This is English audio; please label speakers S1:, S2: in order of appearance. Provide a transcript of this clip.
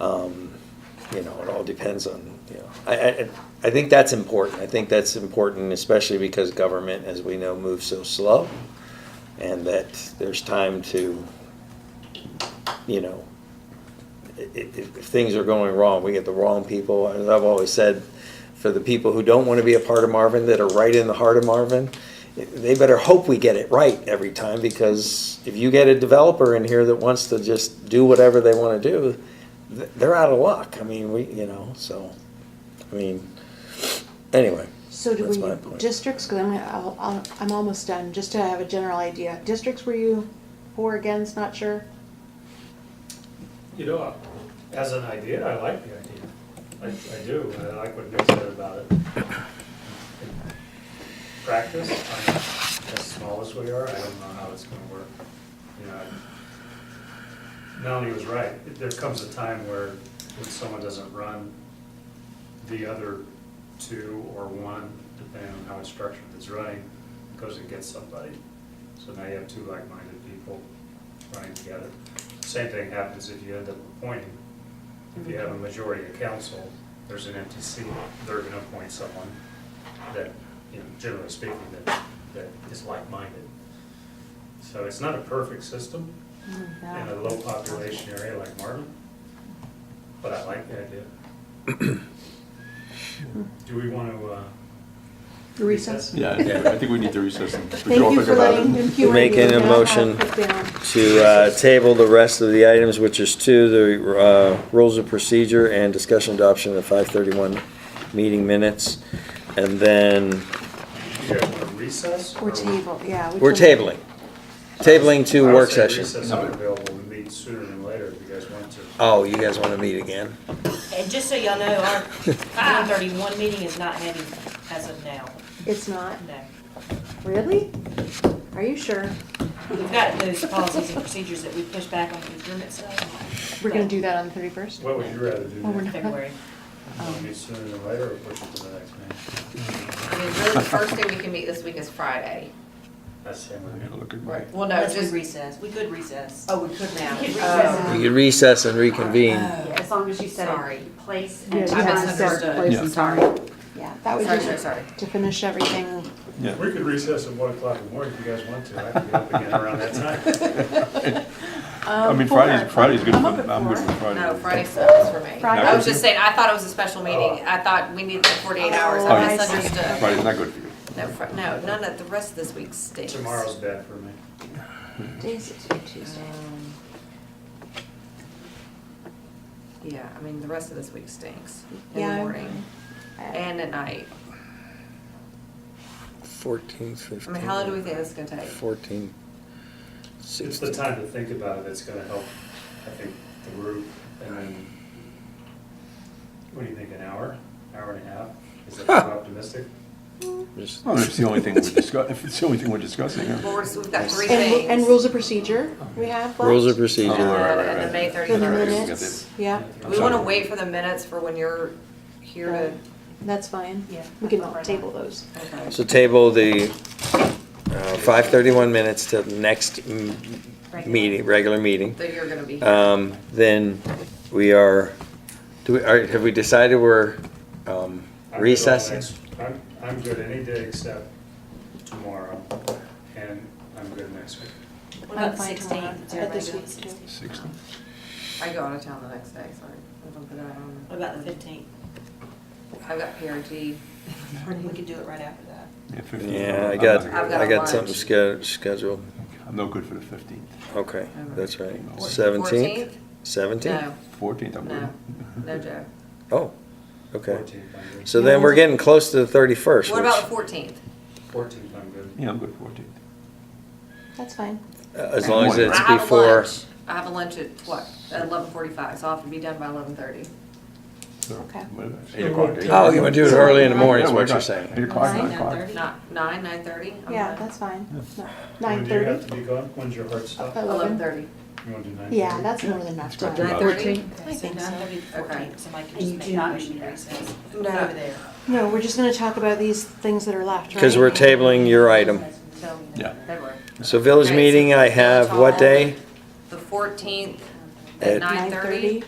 S1: Um, You know, it all depends on, you know, I, I, I think that's important. I think that's important, especially because government, as we know, moves so slow. And that there's time to, you know, if, if things are going wrong, we get the wrong people. As I've always said, for the people who don't want to be a part of Marvin, that are right in the heart of Marvin, they better hope we get it right every time because if you get a developer in here that wants to just do whatever they want to do, th- they're out of luck. I mean, we, you know, so, I mean, anyway.
S2: So do
S1: that's
S2: we,
S1: my point.
S2: districts, because I'm, I'll- I'll- I'm almost done, just to have a general idea. Districts were you for, against, not sure?
S3: You know, as an idea, I like the idea. I, I do, I like what Nick said about it. In Practice, I'm not- as small as we are, I don't know how it's gonna work. You know, I- Melanie was right, there comes a time where when someone doesn't run, the other two or one, depending on how it's structured, that's running, goes and gets somebody. So now you have two like-minded people running together. Same thing happens if you end up appointing. If you have a majority of council, there's an empty seat, they're gonna appoint someone that, you know, generally speaking, that, that is like-minded. So it's not a perfect system
S2: Mm,
S3: in a
S2: no.
S3: low population area like Marvin, but I like the idea.
S4: Hmm.
S3: Do we want to? uh,
S2: Recess?
S4: Yeah, I think- I think we need to recess. and- Would all
S2: Thank you
S4: think
S2: for
S4: about it?
S2: letting him cue
S1: Making a motion. to uh, table the rest of the items, which is two, the uh, rules of procedure and discussion adoption of the 531 meeting minutes. And then
S3: You guys want to recess?
S2: Or table, yeah. we
S1: we're
S2: can-
S1: tabling, tabling to
S3: I would
S1: work
S3: say
S1: session.
S3: Recess if available, we meet sooner than later if you guys want to.
S1: Oh, you guys want to meet again?
S5: And just so y'all know, our one thirty-one meeting is not heavy as of now,
S2: It's not,
S5: no.
S2: really? Are you sure?
S5: We've got those policies and procedures that we push back on the procurement stuff.
S2: We're gonna do that on the thirty-first?
S3: What would you rather do?
S2: Well, we're not-
S5: February.
S3: Wanna Meet sooner than later or push it to the next meeting?
S6: I mean, really, the first day we can meet this week is Friday.
S3: That's the same
S4: I gotta
S3: with me.
S4: look at-
S6: Well, no,
S5: Unless we
S6: just,
S5: recess, we could recess.
S7: Oh, we could now.
S5: We could
S7: Oh,
S1: We could recess and reconvene.
S7: yeah, As long as you said
S6: Sorry.
S7: a place
S2: Yeah, you
S7: and
S2: have
S7: time.
S2: to set
S6: misunderstood.
S2: place
S4: Yeah.
S2: and time. Yeah, that was
S6: sorry, sorry,
S2: just
S6: sorry.
S2: to finish everything.
S4: Yeah.
S3: We could recess at one o'clock in the morning if you guys want to. I can get up again around that time.
S4: I mean, Friday's, Friday's good,
S2: Um, I'm
S4: for-
S2: up at
S4: I'm good
S2: four.
S4: for Friday. Oh.
S6: No, Friday sucks for me.
S2: Friday.
S6: I was just saying, I thought it was a special meeting. I thought we needed forty-eight hours.
S2: Oh,
S6: I
S2: I see.
S6: misunderstood.
S4: Friday's not good for you.
S6: No, Fri- no, none of, the rest of this week stinks.
S3: Tomorrow's bad for me.
S2: Days, Tuesday.
S6: Um, Yeah, I mean, the rest of this week stinks. In the
S2: Yeah.
S6: morning
S2: I-
S6: and at night.
S1: 14,
S6: I mean, how long do we
S1: 15,
S6: think this is gonna take?
S1: 14,
S3: It's the
S1: 16.
S3: time to think about it that's gonna help, I think, the group, and then, what do you think, an hour, hour and a half? Is that too optimistic?
S1: Just-
S4: Well, if it's the only thing we're discussing, if it's the only thing we're discussing. yeah.
S6: Well, we're- we've got three things.
S2: And, and rules of procedure we have left?
S1: Rules of
S4: Oh, all
S1: procedure.
S4: right, right,
S6: And the
S4: right.
S6: May
S2: The
S6: 31st.
S2: minutes, yeah,
S4: I'm
S6: We wanna
S4: sorry.
S6: wait for the minutes for when you're here to.
S2: that's fine.
S5: Yeah.
S2: We can all table those.
S6: Okay.
S1: So table the uh, 531 minutes to the next m-
S5: Regular.
S1: meeting, regular meeting.
S6: That you're gonna be
S4: Uh,
S6: here.
S1: Um, then we are, do we, are, have we decided we're, um,
S3: I'm good all
S1: recessing?
S3: next- I'm, I'm good any day except tomorrow, and I'm good next week.
S5: What about the
S2: I'm fine tomorrow,
S5: sixteenth?
S2: but this week's too.
S4: Six.
S6: I go out of town the next day, sorry. I don't think I own-
S5: What about the fifteenth?
S6: I've got PRG.
S5: We could do it right after that.
S4: Yeah, 15.
S1: Yeah, I
S4: I'm
S1: got,
S4: not-
S6: I've got
S1: I got
S6: lunch.
S1: something sched- scheduled.
S4: I'm no good for the fifteenth.
S1: Okay, that's right.
S4: Fourteenth?
S1: Seventeenth?
S6: No,
S1: Seventeenth?
S4: Fourteenth, I'm good.
S6: no, no, Joe.
S1: Oh, okay.
S3: 14th, I'm good.
S1: So then we're getting close to the thirty-first,
S6: What
S1: which,
S6: about the
S1: uh,
S6: 14th?
S3: 14th, I'm good.
S4: Yeah, I'm good fourteenth.
S2: That's fine.
S1: uh, as long as
S4: Morning.
S1: it's
S6: I have a
S1: before.
S6: lunch. I have a lunch at, what, at 11:45, so I'll have to be done by 11:30.
S2: Okay.
S4: Eight o'clock. eight
S1: Oh, you
S4: o'clock.
S1: wanna do it early in the morning is
S4: Yeah, why
S1: what you're
S4: not? Eight
S1: saying?
S4: o'clock,
S5: Nine,
S4: nine o'clock.
S5: 9:30.
S6: Not 9, 9:30? I'm
S2: Yeah,
S6: done.
S2: that's fine.
S3: When
S2: Nine
S3: do you have
S2: thirty?
S3: to be gone? When's your hard stop?
S2: Uh,
S3: You
S6: 11:30.
S3: wanna do nine?
S2: Yeah, that's more than enough
S4: That's
S2: time.
S4: good.
S6: 9:30?
S5: Okay, so
S2: think so.
S5: nine thirty to
S6: Okay.
S5: fourteen, somebody could
S7: And
S5: just
S7: you
S5: make
S7: do
S5: a
S7: not
S5: motion
S7: need
S5: to
S7: to
S5: recess.
S6: No.
S5: Over there.
S2: No, we're just gonna talk about these things that are left, right?
S1: Cause we're tabling your item.
S5: So-
S4: Yeah.
S6: February.
S1: So village
S6: Okay, so
S1: meeting, I
S6: let's
S1: have, what
S6: all-
S1: day?
S6: The 14th
S1: At-
S6: at
S2: Nine
S6: 9:30?
S2: thirty?